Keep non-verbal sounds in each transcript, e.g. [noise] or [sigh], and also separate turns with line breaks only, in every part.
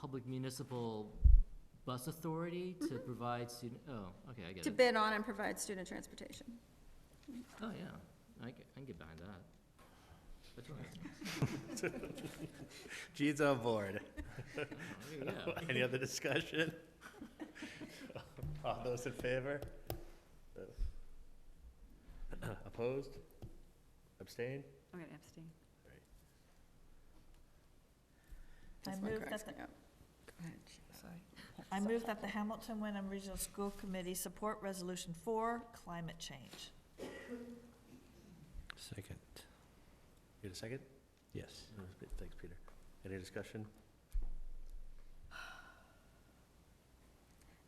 Public Municipal Bus Authority to provide student, oh, okay, I get
to
it.
bid on and provide student transportation.
Oh, yeah, I ca- I can get behind that. That's right.
Gene's on board.
Oh, there you go.
[laughs] Any other discussion? All those in favor? Opposed? Abstained?
I'm going to abstain.
I
This one
move
cracks
that
me up.
Sorry. I move that the Hamilton Wyndham Regional School Committee support Resolution Four, climate change.
Second,
Need a second? Oh,
yes.
Thanks, Peter. Any discussion?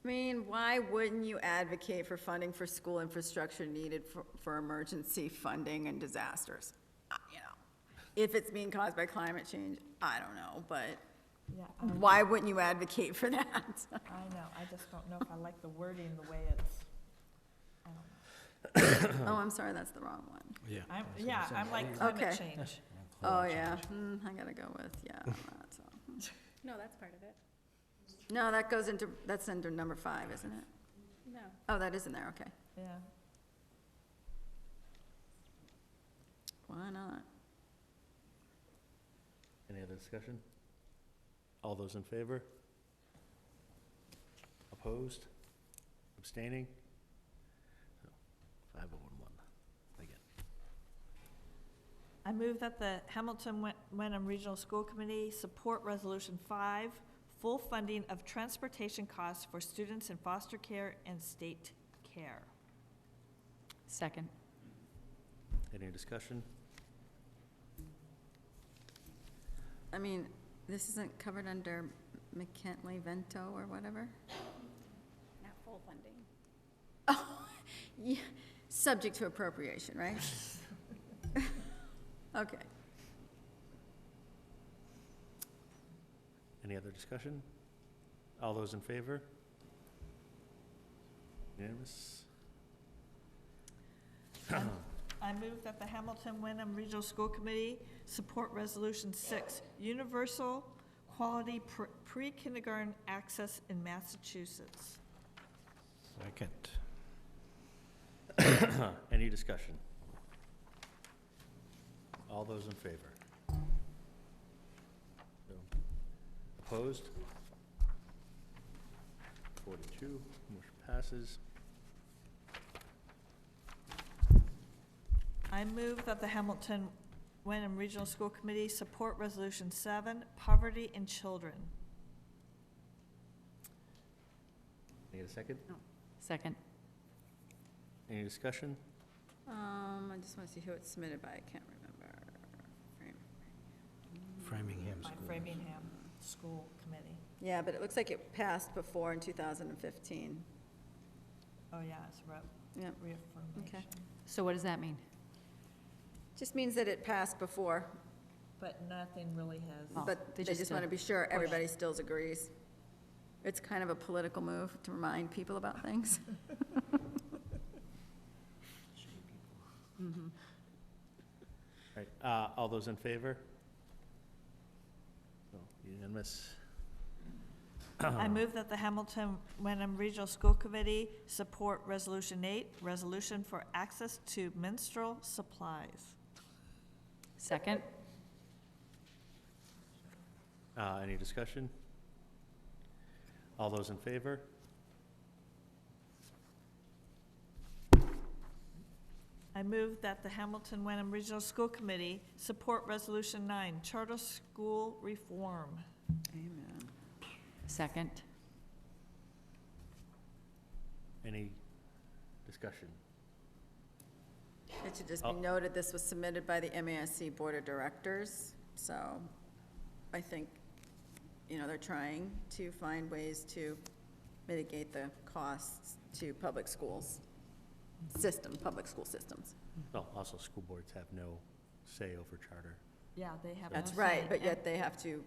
I mean, why wouldn't you advocate for funding for school infrastructure needed for, for emergency funding and disasters? Uh, You know, if it's being caused by climate change, I don't know, but
Yeah,
why wouldn't you advocate for that? [laughs]
I know, I just don't know if I like the wording, the way it's, um, I don't know.
Oh, I'm sorry, that's the wrong one.
Yeah.
I'm, yeah, I'm like climate
Okay.
change.
Oh, yeah, hmm, I gotta go with, yeah, on that, so. hmm.
No, that's part of it.
No, that goes into, that's under number five, isn't it?
No.
Oh, that is in there, okay.
Yeah,
Why not?
Any other discussion? All those in favor? Opposed? Abstaining? Five oh one one, again.
I move that the Hamilton Wy- Wyndham Regional School Committee support Resolution Five, full funding of transportation costs for students in foster care and state care.
Second.
Any discussion?
I mean, this isn't covered under McKinley Vento or whatever?
Not full funding.
Oh, [laughs] yeah, subject to appropriation, right? [laughs] Okay,
Any other discussion? All those in favor? Unanimous?
I move that the Hamilton Wyndham Regional School Committee support Resolution Six, universal quality pr- pre-kindergarten access in Massachusetts.
Second,
[coughs] Any discussion? All those in favor? No. Opposed? Forty-two, motion passes.
I move that the Hamilton Wyndham Regional School Committee support Resolution Seven, poverty in children.
Need a second?
Second.
Any discussion?
um, I just wanna see who it's submitted by, I can't remember. Frame.
Framingham
By
School.
Framingham School Committee.
Yeah, but it looks like it passed before in two thousand and fifteen.
Oh, yeah, it's re-
Yep,
reaffirmation.
So what does that mean?
just means that it passed before,
But nothing really
Oh,
has,
but
they
they
just,
just
uh,
wanna be sure
push.
everybody still agrees. It's kind of a political move to remind people about things. [laughs]
All right, uh, all those in favor? No, Unanimous?
I
Oh.
move that the Hamilton Wyndham Regional School Committee support Resolution Eight, resolution for access to menstrual supplies.
Second.
[clears throat] Uh, any discussion? All those in favor?
I move that the Hamilton Wyndham Regional School Committee support Resolution Nine, charter school reform.
Amen.
Second.
Any discussion?
It should just be
Oh.
noted, this was submitted by the MASC Board of Directors, so I think, you know, they're trying to find ways to mitigate the costs to public schools, system, public school systems.
Well, also, school boards have no say over charter.
Yeah, they have.
That's
no
right,
say.
but yet they have to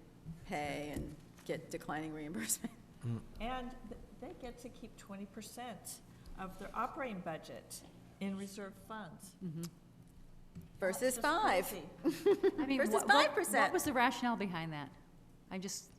pay and get declining reimbursement.
And th- they get to keep twenty percent of their operating budget in reserve funds.
Versus
That's just
five.
crazy.
I mean,
Versus
what- what-
5%.
What was the rationale behind that? I just,